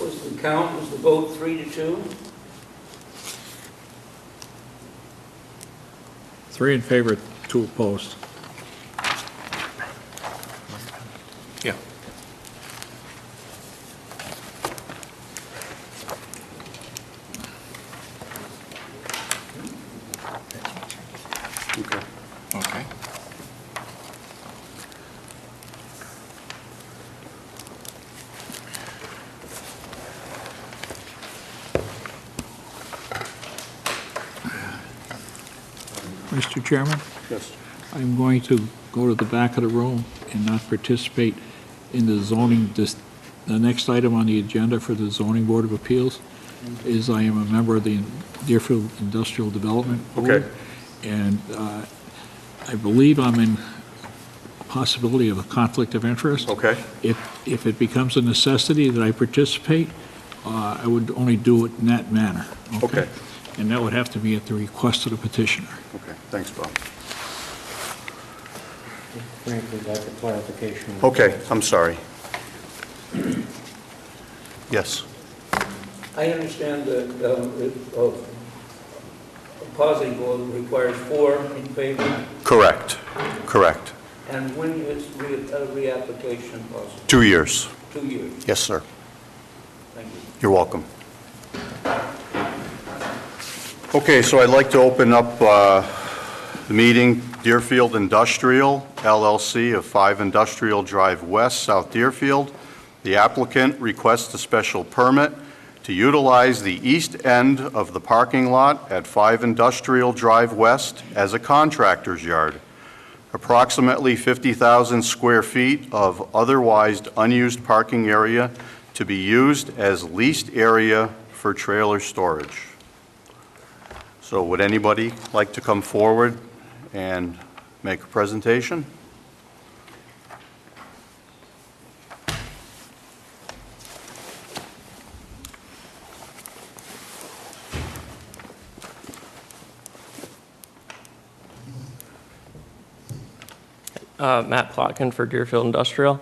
was the count, was the vote three to two? Three in favor, two opposed. Yeah. Okay. Okay. Mr. Chairman, Yes. I'm going to go to the back of the room and not participate in the zoning, dis- the next item on the agenda for the zoning board of appeals is I am a member of the Deerfield Industrial Development Board. Okay. And uh, I believe I'm in possibility of a conflict of interest. Okay. If, if it becomes a necessity that I participate, uh, I would only do it in that manner. Okay. And that would have to be at the request of the petitioner. Okay, thanks, Bob. Frank would like a clarification. Okay, I'm sorry. Yes. I understand that um, that, uh, a positive vote requires four in favor, Correct, correct. and when is re- a reapplication possible? Two years. Two years, Yes, sir. thank you. You're welcome. Okay, so I'd like to open up uh, the meeting, Deerfield Industrial LLC of 5 Industrial Drive West, South Deerfield. The applicant requests a special permit to utilize the east end of the parking lot at 5 Industrial Drive West as a contractor's yard. Approximately 50,000 square feet of otherwise unused parking area to be used as leased area for trailer storage. So would anybody like to come forward and make a presentation? Uh, Matt Plotkin for Deerfield Industrial.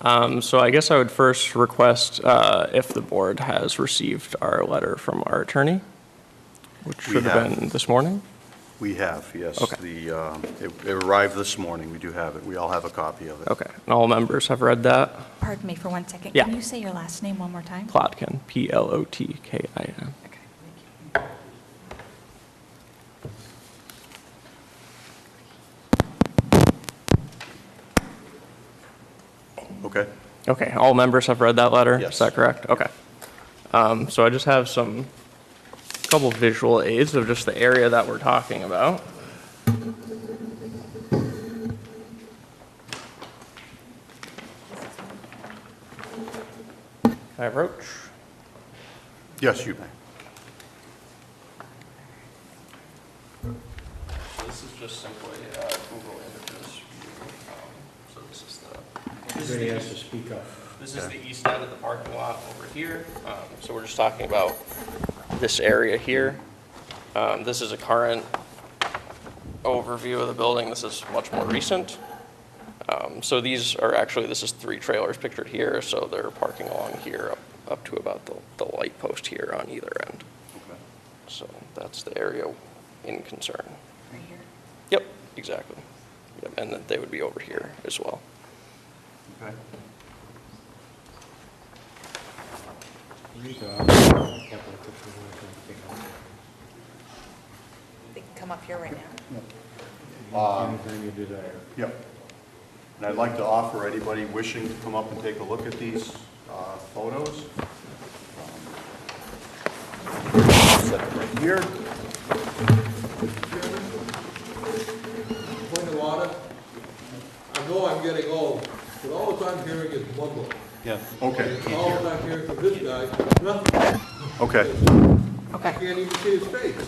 Um, So I guess I would first request uh, if the board has received our letter from our attorney, which We should have have. been this morning. We have, yes. Okay. The, uh, It it arrived this morning, we do have it, we all have a copy of it. Okay, and all members have read that. Pardon me for one second. Yeah. Can you say your last name one more time? Plotkin, P-L-O-T-K-I-N. Okay. Okay? Okay, all members have read that letter? Yes. Is that correct? Okay. Um, So I just have some, couple visual aids of just the area that we're talking about. Can I approach? Yes, you may. This is just simply Google Images. um, So this is the, Everybody has to speak up. This is the east side of the parking lot over here. Um, So we're just talking about this area here. Um, This is a current overview of the building. This is much more recent. Um, So these are actually, this is three trailers pictured here, so they're parking along here up up to about the the light post here on either end. So that's the area in concern. Right here. Yep, exactly. Yep, And that they would be over here as well. Okay. Read off. Can't look at the They can come up here right now. photo. Anytime you do that. Yep. And I'd like to offer anybody wishing to come up and take a look at these uh, photos. Um, Set it right here. point of order. I know I'm getting old, but all that I'm hearing is mumble. Okay, All that I'm hearing from this guy, nothing. okay. I can't even see his face.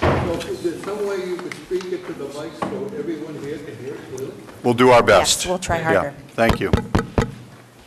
So is there some way you could speak it to the mic so everyone here can hear it clearly? We'll do our Yes, best. we'll try Yeah, harder. Thank you.